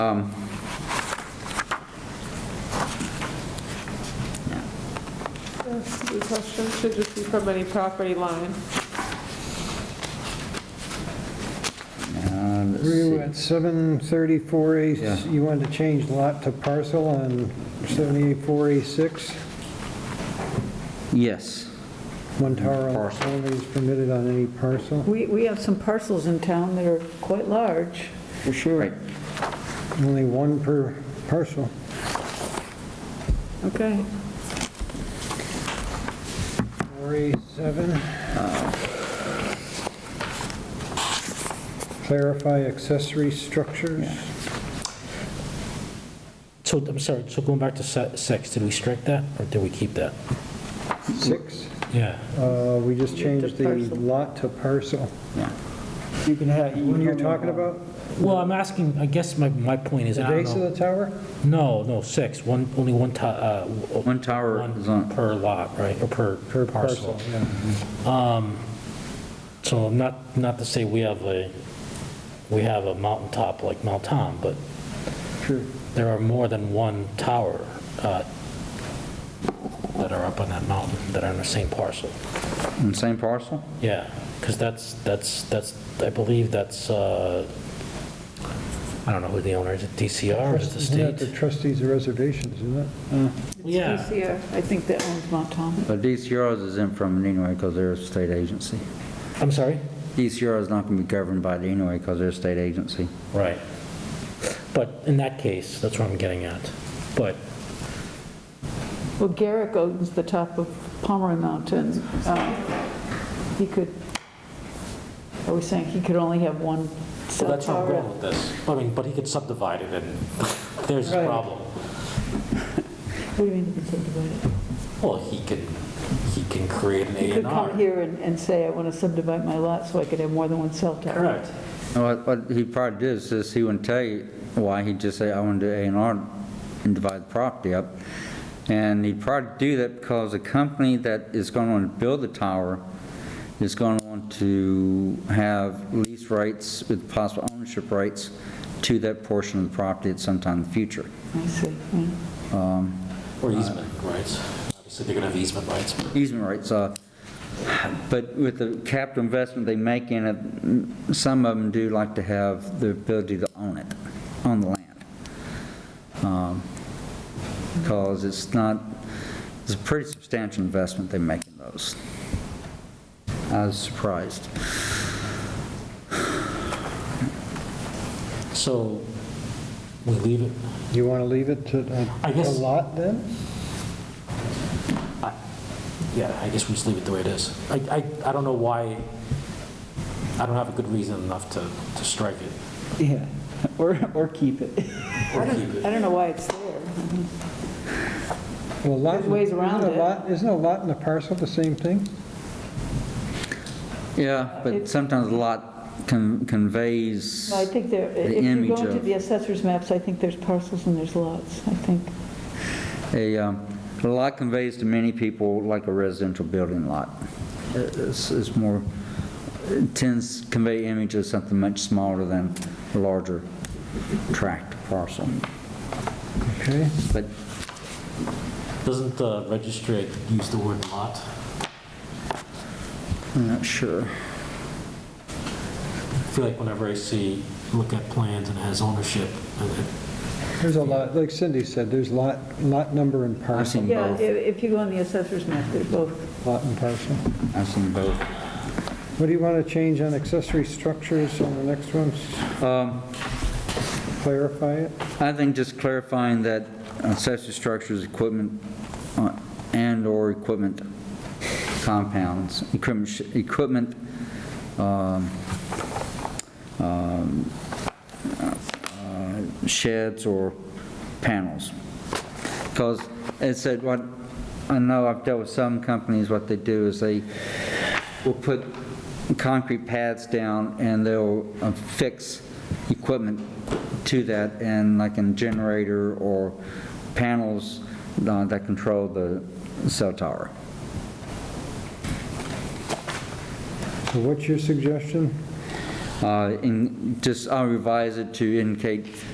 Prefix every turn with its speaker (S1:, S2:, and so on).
S1: Um,
S2: The question should just be from any property line.
S1: Uh, let's
S3: Through
S1: see.
S3: at 734A,
S1: Yeah.
S3: you wanted to change lot to parcel on 784A6.
S1: Yes.
S3: One tower
S1: Parcel.
S3: only is permitted on any parcel.
S4: We, we have some parcels in town that are quite large.
S1: For sure.
S3: Only one per parcel.
S4: Okay.
S3: 4A7. Clarify accessory structures.
S5: So, I'm sorry, so going back to se- six, did we strike that, or did we keep that?
S3: Six,
S5: Yeah.
S3: uh, we just
S4: You did
S3: changed the
S4: parcel.
S3: lot to parcel.
S1: You can have.
S3: What are you talking about?
S5: Well, I'm asking, I guess my, my point is,
S3: The
S5: I don't
S3: base of the
S5: know.
S3: tower?
S5: No, no, six, one, only one ti, uh. w-
S1: One tower
S5: one
S1: is on,
S5: Per lot, right, or per.
S3: Per parcel, yeah.
S5: So not, not to say we have a, we have a mountaintop like Mount Tom, but
S3: True.
S5: there are more than one tower uh, that are up on that mountain that are in the same parcel.
S1: on the same parcel?
S5: Yeah, because that's, that's, that's, I believe that's, uh, I don't know who the owner is, DCR, is it the
S3: Isn't that the
S5: state? Uh.
S3: trustees of reservations, isn't it?
S5: Yeah.
S4: DCR, I think that owns Mount Tom.
S1: But DCRs is in from it anyway because they're a state agency.
S5: I'm sorry?
S1: DCR is not going to be governed by it anyway because they're a state agency.
S5: Right. But in that case, that's what I'm getting at. But,
S4: Well, Garrick owns the top of Pomeroy Mountain. Uh, He could, I was saying, he could only have one
S5: so
S4: cell
S5: that's how I'm going
S4: tower.
S5: with this. I mean, but he could subdivide it and there's a
S3: Right.
S5: problem.
S4: What do you mean he could subdivide it?
S5: Well, he could, he can create an
S4: He
S5: A
S4: could
S5: and
S4: come
S5: R.
S4: here and, and say, I want to subdivide my lot so I could have more than one cell tower.
S5: Correct.
S1: Now, What what he probably did is this, he wouldn't tell you why, he'd just say, I want to do A and R and divide the property up. And he'd probably do that because the company that is going to want to build the tower is going to want to have lease rights with possible ownership rights to that portion of the property at some time in the future.
S4: I see, yeah.
S5: Or easement rights. Obviously, they're going to have easement rights.
S1: easement rights. uh, But with the capital investment they make in it, some of them do like to have the ability to own it, own the land. Because it's not, it's a pretty substantial investment they make in those. I was surprised.
S5: So we leave it.
S3: You want to leave it to a-
S5: I
S3: a
S5: guess-
S3: lot then?
S5: Yeah, I guess we just leave it the way it is. I, I, I don't know why, I don't have a good reason enough to, to strike it
S6: Yeah, or, or keep it.
S5: or keep
S4: I
S5: it.
S4: don't know why it's there.
S3: Well, lot.
S4: There's ways
S3: isn't
S4: around
S3: a
S4: it.
S3: lot- Isn't a lot and a parcel the same thing?
S1: Yeah, but sometimes a lot con- conveys,
S4: No, I think there,
S1: The
S4: if you go
S1: image
S4: into
S1: of-
S4: the assessor's maps, I think there's parcels and there's lots, I think.
S1: a um, a lot conveys to many people like a residential building lot. It- It's it's more, it tends to convey image of something much smaller than a larger tract parcel.
S3: Okay.
S1: But
S5: Doesn't the registrar use the word lot?
S1: I'm not sure.
S5: I feel like whenever I see, look at plans and it has ownership, and it-
S3: There's a lot, like Cindy said, there's lot, lot number and
S1: I've
S3: parcel,
S1: seen
S4: Yeah,
S1: both.
S4: if if you go on the assessor's map, they're both.
S3: lot and parcel.
S1: I've seen both.
S3: What do you want to change on accessory structures on the next one?
S1: Um,
S3: Clarify it?
S1: I think just clarifying that accessory structures, equipment, uh, and/or equipment compounds, equipment, sh- equipment, um, um, uh, sheds or panels. Because it said, what, I know I've dealt with some companies, what they do is they will put concrete pads down and they'll affix equipment to that and like a generator or panels uh, that control the cell tower.
S3: So what's your suggestion?
S1: Uh, And just, I'll revise it to indicate